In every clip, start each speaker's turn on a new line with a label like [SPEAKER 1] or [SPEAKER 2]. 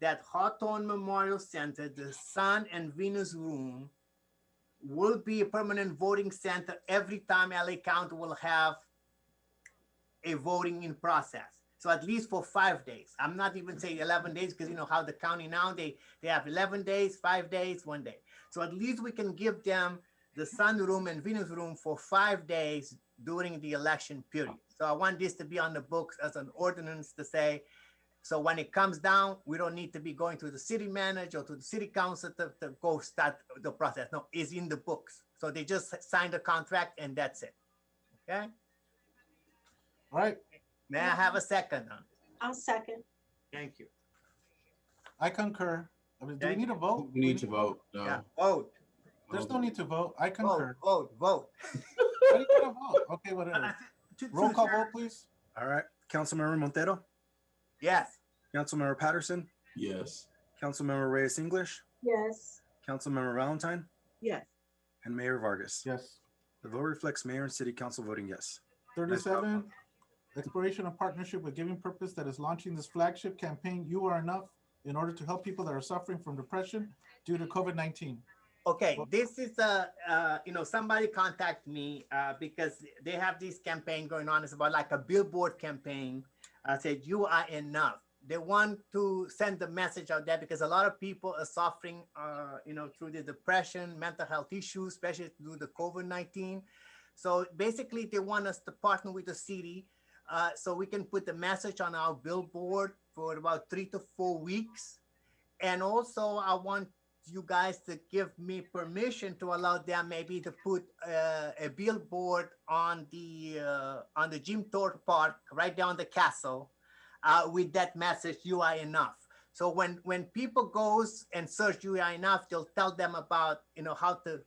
[SPEAKER 1] that Hawthorne Memorial Center, the Sun and Venus Room, will be a permanent voting center every time LA County will have a voting in process. So at least for five days. I'm not even saying 11 days because you know how the county now they they have 11 days, five days, one day. So at least we can give them the sun room and Venus room for five days during the election period. So I want this to be on the books as an ordinance to say, so when it comes down, we don't need to be going to the city manager or to the city council to, to go start the process. No, it's in the books. So they just sign the contract and that's it. Okay?
[SPEAKER 2] All right,
[SPEAKER 1] May I have a second on it?
[SPEAKER 3] I'll second.
[SPEAKER 1] Thank you.
[SPEAKER 2] I concur. I mean, do we
[SPEAKER 1] Thank
[SPEAKER 2] need a vote?
[SPEAKER 4] We need to vote,
[SPEAKER 1] Yeah,
[SPEAKER 4] no.
[SPEAKER 1] vote,
[SPEAKER 2] There's no need to vote. I
[SPEAKER 1] vote,
[SPEAKER 2] concur.
[SPEAKER 1] vote, vote.
[SPEAKER 2] How do you get a vote? Okay, whatever. Roll call vote, please.
[SPEAKER 5] All right, Councilmember Montero,
[SPEAKER 1] Yes,
[SPEAKER 5] Councilmember Patterson,
[SPEAKER 4] Yes,
[SPEAKER 5] Councilmember Reyes English,
[SPEAKER 3] Yes.
[SPEAKER 5] Councilmember Valentine,
[SPEAKER 3] Yes.
[SPEAKER 5] and Mayor Vargas.
[SPEAKER 2] Yes.
[SPEAKER 5] The vote reflects mayor and city council voting yes.
[SPEAKER 2] Thirty-seven, exploration of partnership with Giving Purpose that is launching this flagship campaign, You Are Enough, in order to help people that are suffering from depression due to COVID nineteen.
[SPEAKER 1] okay, this is a, uh, you know, somebody contact me, uh, because they have this campaign going on, it's about like a billboard campaign. I said, you are enough. They want to send the message out there because a lot of people are suffering, uh, you know, through the depression, mental health issues, especially through the COVID-19. So basically, they want us to partner with the city uh, so we can put the message on our billboard for about three to four weeks. And also, I want you guys to give me permission to allow them maybe to put uh, a billboard on the uh, on the Jim Thorpe Park, right down the castle, uh, with that message, "You are enough." So when when people goes and search "You are enough," they'll tell them about you know how to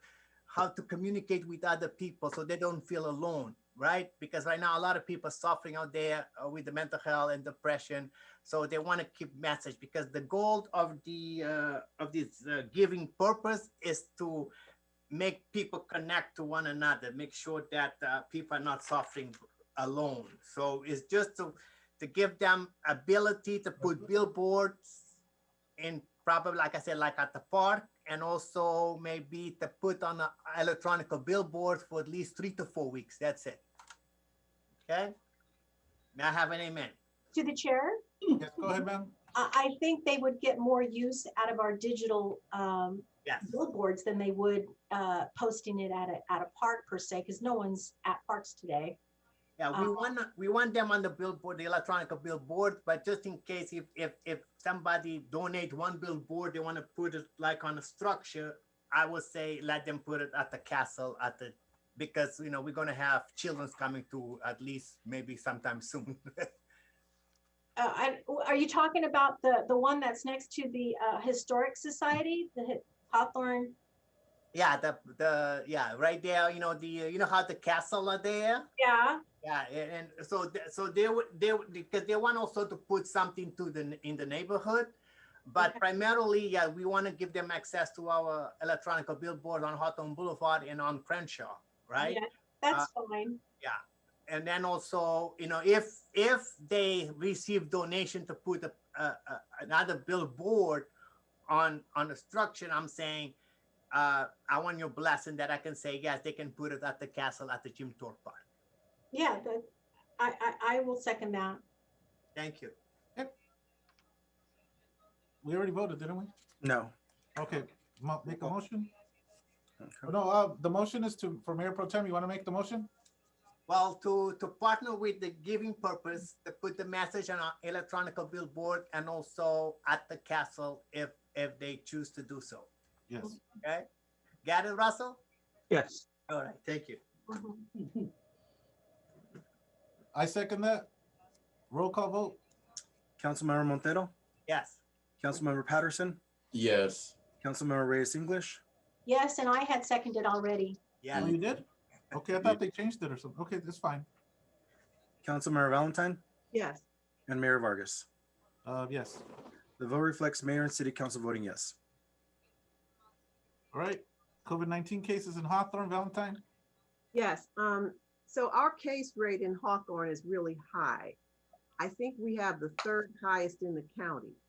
[SPEAKER 1] how to communicate with other people so they don't feel alone, right? Because right now a lot of people are suffering out there uh, with the mental health and depression, so they want to keep message because the goal of the uh, of this uh, giving purpose is to make people connect to one another, make sure that uh, people are not suffering alone. So it's just to to give them ability to put billboards in probably like I said, like at the park, and also maybe to put on a electronic billboard for at least three to four weeks. That's it. Okay. May I have an amen?
[SPEAKER 3] To the chair,
[SPEAKER 2] Yes, go ahead, ma'am.
[SPEAKER 3] I, I think they would get more use out of our digital um,
[SPEAKER 1] Yes.
[SPEAKER 3] billboards than they would uh, posting it at a, at a park per se, because no one's at parks today.
[SPEAKER 1] Yeah, we
[SPEAKER 3] Um,
[SPEAKER 1] want, we want them on the billboard, the electronic billboard, but just in case if, if, if somebody donate one billboard, they want to put it like on a structure, I would say let them put it at the castle, at the, because, you know, we're gonna have children's coming to at least maybe sometime soon.
[SPEAKER 3] Uh, I, are you talking about the, the one that's next to the uh, Historic Society, the Hi- Hawthorne?
[SPEAKER 1] Yeah, the, the, yeah, right there, you know, the, you know how the castle are there?
[SPEAKER 3] Yeah,
[SPEAKER 1] Yeah, a- and so, th- so they would, they, would- because they want also to put something to the, n- in the neighborhood. But
[SPEAKER 3] Okay.
[SPEAKER 1] primarily, yeah, we want to give them access to our electronic billboard on Hawthorne Boulevard and on Crenshaw, right?
[SPEAKER 3] Yeah, that's fine.
[SPEAKER 1] And then also, you know, if, if they receive donation to put a, a, a- another billboard on, on the structure, I'm saying, uh, I want your blessing that I can say, yes, they can put it at the castle at the Jim Thorpe Park.
[SPEAKER 3] Yeah, that, I, I, I will second that.
[SPEAKER 1] Thank you.
[SPEAKER 2] We already voted, didn't we?
[SPEAKER 5] No.
[SPEAKER 2] Okay, mo- make a motion.
[SPEAKER 5] Okay.
[SPEAKER 2] No, uh, the motion is to, for Mayor Pro Tem, you want to make the motion?
[SPEAKER 1] Well, to, to partner with the giving purpose, to put the message on our electronic billboard and also at the castle if, if they choose to do so.
[SPEAKER 2] Yes.
[SPEAKER 1] Okay? Got it, Russell?
[SPEAKER 5] Yes.
[SPEAKER 1] All right, thank you.
[SPEAKER 3] Mhm.
[SPEAKER 2] I second that. Roll call vote.
[SPEAKER 5] Councilmember Montero,
[SPEAKER 1] Yes.
[SPEAKER 5] Councilmember Patterson,
[SPEAKER 4] yes,
[SPEAKER 5] Councilmember Reyes English,
[SPEAKER 3] Yes, and I had seconded already.
[SPEAKER 2] Oh,
[SPEAKER 1] Yeah.
[SPEAKER 2] you did? Okay, I thought they changed it or something. Okay, that's fine.
[SPEAKER 5] Councilmember Valentine,
[SPEAKER 3] Yes.
[SPEAKER 5] and Mayor Vargas.
[SPEAKER 2] Uh, yes.
[SPEAKER 5] The vote reflects mayor and city council voting yes.
[SPEAKER 2] All right. COVID nineteen cases in Hawthorne, Valentine.
[SPEAKER 6] Yes, um, so our case rate in Hawthorne is really high. I think we have the third highest in the county.